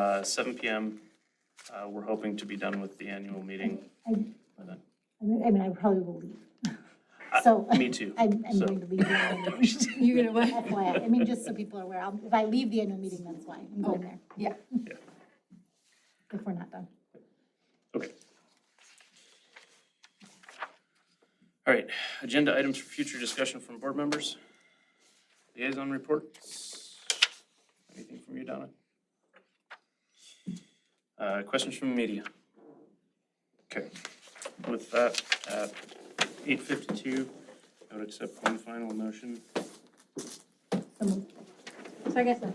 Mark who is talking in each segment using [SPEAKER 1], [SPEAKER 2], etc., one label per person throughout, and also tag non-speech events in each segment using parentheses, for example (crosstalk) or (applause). [SPEAKER 1] uh, seven PM. Uh, We're hoping to be done with the annual meeting.
[SPEAKER 2] I,
[SPEAKER 1] by then.
[SPEAKER 2] I mean, I mean, I probably will leave. So
[SPEAKER 1] Uh, Me too.
[SPEAKER 2] (laughs) I'm, I'm
[SPEAKER 1] So-
[SPEAKER 2] going to leave the annual meeting.
[SPEAKER 3] You're gonna what?
[SPEAKER 2] FYI, I mean, just so people are aware, I'll- if I leave the annual meeting, that's why I'm going there,
[SPEAKER 3] Yeah.
[SPEAKER 2] if we're not done.
[SPEAKER 1] Okay. All right, agenda items for future discussion from board members. Liaison reports. Anything from you, Donna? Uh, Questions from media? Okay, with that, at 8:52, I would accept one final motion.
[SPEAKER 2] So moved.
[SPEAKER 3] So I guess not.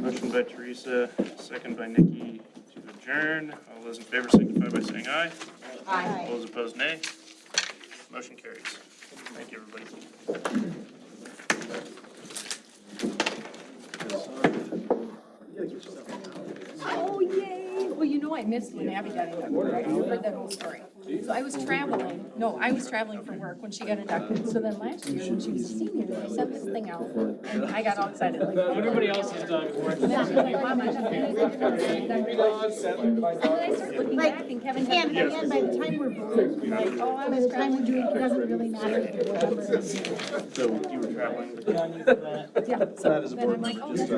[SPEAKER 1] Motion by Teresa, second by Nikki to adjourn. All those in favor signify by saying aye.
[SPEAKER 2] Aye.
[SPEAKER 1] All those opposed, nay. Motion carries. Thank you, everybody.
[SPEAKER 3] Oh, yay. Well, you know, I missed when Abby got inducted, right? You heard that whole story. So I was traveling, no, I was traveling for work when she got inducted. So then last year, when she was a senior, they sent this thing out and I got all excited like.
[SPEAKER 4] Everybody else has done it.
[SPEAKER 3] And then she's like, Mom, I just- And then I started looking back and Kevin had.
[SPEAKER 2] And, and by the time we're voting, like, oh, by the time we do it, it doesn't really matter if it was ever.
[SPEAKER 1] So you were traveling.
[SPEAKER 3] Yeah, so then I'm like, oh, that's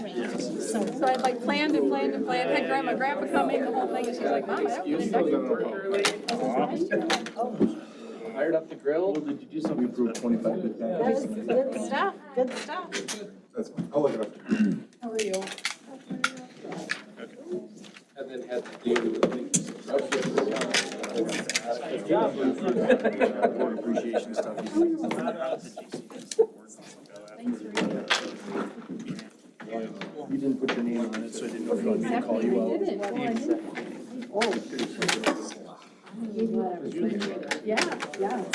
[SPEAKER 3] right. So I like planned and planned and planned, had grandma, grandpa coming, the whole thing, and she's like, mom, I don't get inducted.
[SPEAKER 4] Fired up the grill.
[SPEAKER 5] Did you do something? We approved twenty-five percent.
[SPEAKER 3] Good stuff, good stuff.
[SPEAKER 5] That's fine. I'll look it up.
[SPEAKER 3] How are you?
[SPEAKER 4] And then had to do, I think,
[SPEAKER 5] Board appreciation stuff. You didn't put your name on it, so I didn't know if you wanted me to call you out.
[SPEAKER 3] Yeah, yeah.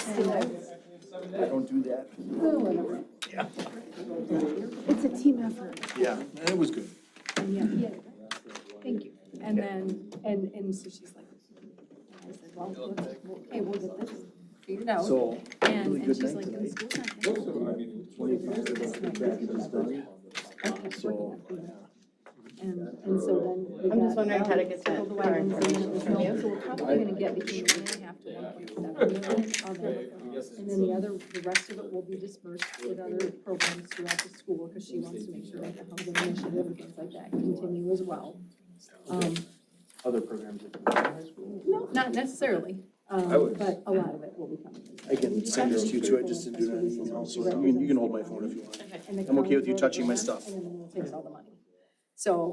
[SPEAKER 5] Don't do that. Yeah. It's a team effort. Yeah, and it was good.
[SPEAKER 3] Thank you. And then, and, and so she's like, I said, well, let's- okay, we'll get this figured out.
[SPEAKER 5] So,
[SPEAKER 3] And,
[SPEAKER 5] really
[SPEAKER 3] and
[SPEAKER 5] good
[SPEAKER 3] she's
[SPEAKER 5] night
[SPEAKER 3] like, the school's not gonna
[SPEAKER 5] twenty-five percent done. So,
[SPEAKER 3] And, and so then. I'm just wondering how to get that. So we're probably gonna get between one and a half to one point seven million of it. And then the other, the rest of it will be dispersed with other programs throughout the school, because she wants to make sure that the housing initiative and things like that continue as well. Um,
[SPEAKER 5] other programs. that you-
[SPEAKER 3] no, not necessarily, um, but a lot of it will be coming.
[SPEAKER 5] I can send this to you too, I just didn't do it on email, so you can, you can hold my phone if you want. I'm okay with you touching my stuff.
[SPEAKER 3] And then the county will vote on it, and then it takes all the money. So